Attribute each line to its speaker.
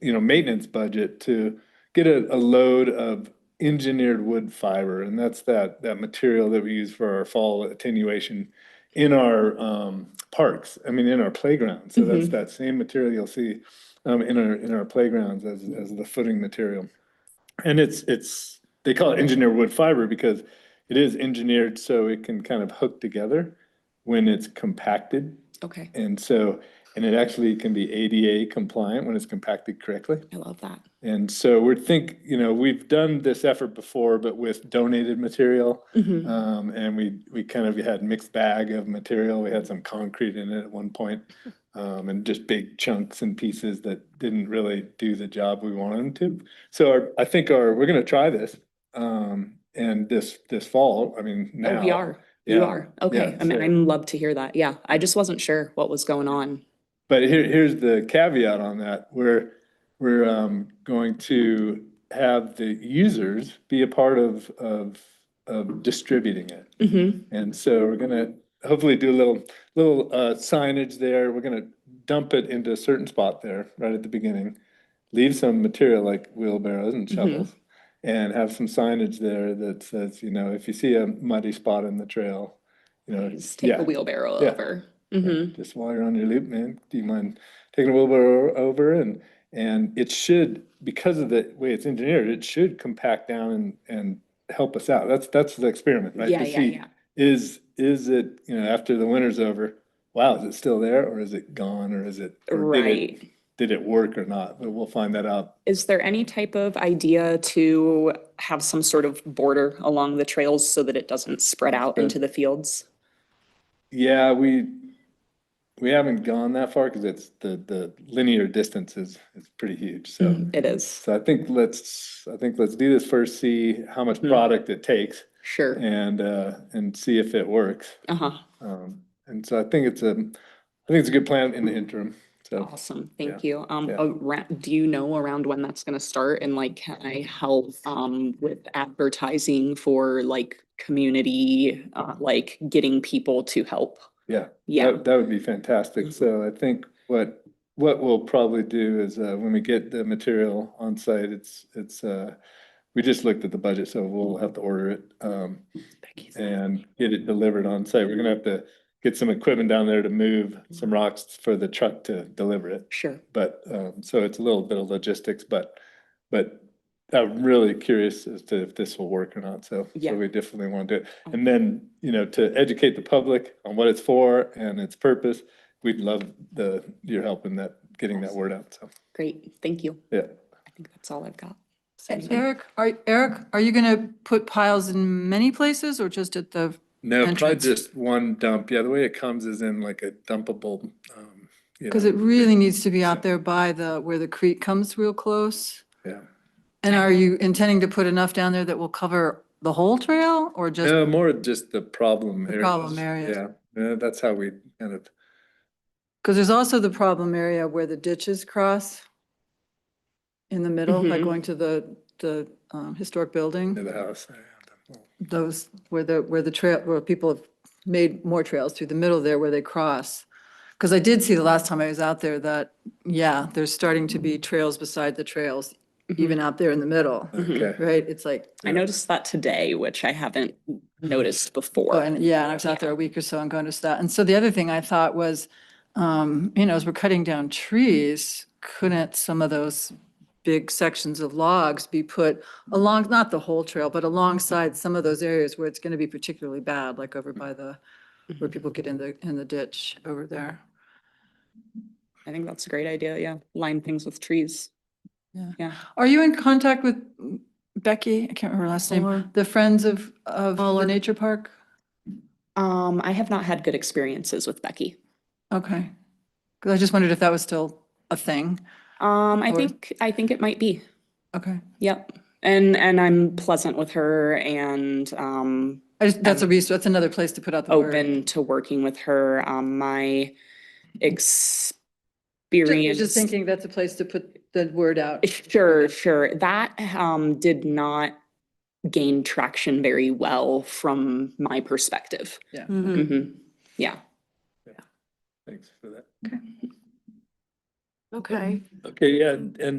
Speaker 1: you know, maintenance budget to get a, a load of engineered wood fiber. And that's that, that material that we use for our fall attenuation in our, um, parks, I mean, in our playgrounds. So that's that same material you'll see, um, in our, in our playgrounds as, as the footing material. And it's, it's, they call it engineered wood fiber because it is engineered so it can kind of hook together when it's compacted.
Speaker 2: Okay,
Speaker 1: And so, and it actually can be ADA compliant when it's compacted correctly.
Speaker 2: I love that.
Speaker 1: And so we're think, you know, we've done this effort before, but with donated material.
Speaker 2: Mhm.
Speaker 1: Um, and we, we kind of had mixed bag of material. We had some concrete in it at one point. Um, and just big chunks and pieces that didn't really do the job we wanted them to. So our, I think our, we're gonna try this. Um, and this, this fall, I mean, now.
Speaker 2: Oh, we are, you
Speaker 1: Yeah,
Speaker 2: are. Okay,
Speaker 1: yeah,
Speaker 2: I mean,
Speaker 1: so-
Speaker 2: I'm love to hear that. Yeah, I just wasn't sure what was going on.
Speaker 1: But here, here's the caveat on that. We're, we're um, going to have the users be a part of, of, of distributing it.
Speaker 2: Mhm.
Speaker 1: And so we're gonna hopefully do a little, little uh, signage there. We're gonna dump it into a certain spot there, right at the beginning. Leave some material like wheelbarrows and
Speaker 2: Mhm.
Speaker 1: shovels and have some signage there that says, you know, if you see a muddy spot in the trail, you know,
Speaker 2: Just take
Speaker 1: Uh, yeah.
Speaker 2: a wheelbarrow
Speaker 1: Yeah.
Speaker 2: over. hmm
Speaker 1: just while you're on your loop, man, do you mind taking a wheelbarrow over and, and it should, because of the way it's engineered, it should compact down and, and help us out. That's, that's the experiment, right?
Speaker 2: Yeah,
Speaker 1: To
Speaker 2: yeah,
Speaker 1: see,
Speaker 2: yeah.
Speaker 1: Is, is it, you know, after the winter's over, wow, is it still there or is it gone or is it? or did it-
Speaker 2: Right.
Speaker 1: Did it work or not? But we'll find that out.
Speaker 2: Is there any type of idea to have some sort of border along the trails so that it doesn't spread out
Speaker 1: Spread.
Speaker 2: into the fields?
Speaker 1: Yeah, we, we haven't gone that far because it's the, the linear distance is, is pretty huge, so.
Speaker 2: Mhm, It is,
Speaker 1: So I think let's, I think let's do this first, see how much
Speaker 2: Mhm.
Speaker 1: product it takes
Speaker 2: sure.
Speaker 1: and, uh, and see if it works.
Speaker 2: Uh-huh,
Speaker 1: Um, and so I think it's a, I think it's a good plan in the interim. So
Speaker 2: awesome, thank you. Um,
Speaker 1: yeah.
Speaker 2: around, do you know around when that's gonna start and like, can I help, um, with advertising for like community, uh, like getting people to help?
Speaker 1: Yeah,
Speaker 2: Yeah,
Speaker 1: that, that would be fantastic.
Speaker 2: Mhm.
Speaker 1: So I think what, what we'll probably do is, uh, when we get the material on site, it's, it's, uh, we just looked at the budget, so we'll have to order it, um, and get it delivered on site. We're gonna have to get some equipment down there to move some rocks for the truck to deliver it.
Speaker 2: sure,
Speaker 1: But, um, so it's a little bit of logistics, but, but I'm really curious as to if this will work or not, so.
Speaker 2: Yeah.
Speaker 1: So we definitely want to do it. And then, you know, to educate the public on what it's for and its purpose, we'd love the, your help in that, getting that word out, so,
Speaker 2: great, thank you.
Speaker 1: yeah.
Speaker 2: I think that's all I've got.
Speaker 3: And Eric, are, Eric, are you gonna put piles in many places or just at the,
Speaker 1: No, probably
Speaker 3: Entrance.
Speaker 1: just one dump. Yeah, the way it comes is in like a dumpable, um, you
Speaker 3: because
Speaker 1: know,
Speaker 3: it really needs to be out there by the, where the creek comes real close?
Speaker 1: yeah.
Speaker 3: And are you intending to put enough down there that will cover the whole trail or just?
Speaker 1: No, more just the problem
Speaker 3: The
Speaker 1: areas.
Speaker 3: problem areas.
Speaker 1: Yeah, Yeah, that's how we kind of,
Speaker 3: Because there's also the problem area where the ditches cross in the middle by
Speaker 2: Mhm.
Speaker 3: going to the, the um, historic
Speaker 1: near
Speaker 3: building,
Speaker 1: the house. Yeah.
Speaker 3: those where the, where the trail, where people have made more trails through the middle there where they cross. Because I did see the last time I was out there that, yeah, there's starting to be trails beside the trails, even out there in the middle,
Speaker 1: Okay.
Speaker 3: right? It's like,
Speaker 2: I noticed that today, which I haven't noticed
Speaker 3: Oh,
Speaker 2: before.
Speaker 3: and yeah, and I was out there a week or so and going to that. And so the other thing I thought was, um, you know, as we're cutting down trees, couldn't some of those big sections of logs be put along, not the whole trail, but alongside some of those areas where it's going to be particularly bad, like over by the, where people get in the, in the ditch over there.
Speaker 2: I think that's a great idea, yeah. Line things with trees.
Speaker 3: Yeah.
Speaker 2: Yeah.
Speaker 3: Are you in contact with Becky? I can't remember her last name. The Friends of, of the Nature Park?
Speaker 2: Um, I have not had good experiences with Becky.
Speaker 3: Okay. Because I just wondered if that was still a thing.
Speaker 2: Um, I
Speaker 3: Or-
Speaker 2: think, I think it might be.
Speaker 3: Okay.
Speaker 2: Yep. And, and I'm pleasant with her and, um,
Speaker 3: I just, that's a resource, that's another place to put out the word.
Speaker 2: open to working with her. Um, my
Speaker 3: Just- I
Speaker 2: experience.
Speaker 3: was Just thinking that's a place to put the word out.
Speaker 2: Sure, sure. That um did not gain traction very well from my perspective.
Speaker 3: Yeah.
Speaker 2: Mhm. Yeah.
Speaker 1: Thanks for that.
Speaker 4: Okay.
Speaker 1: Okay, yeah, and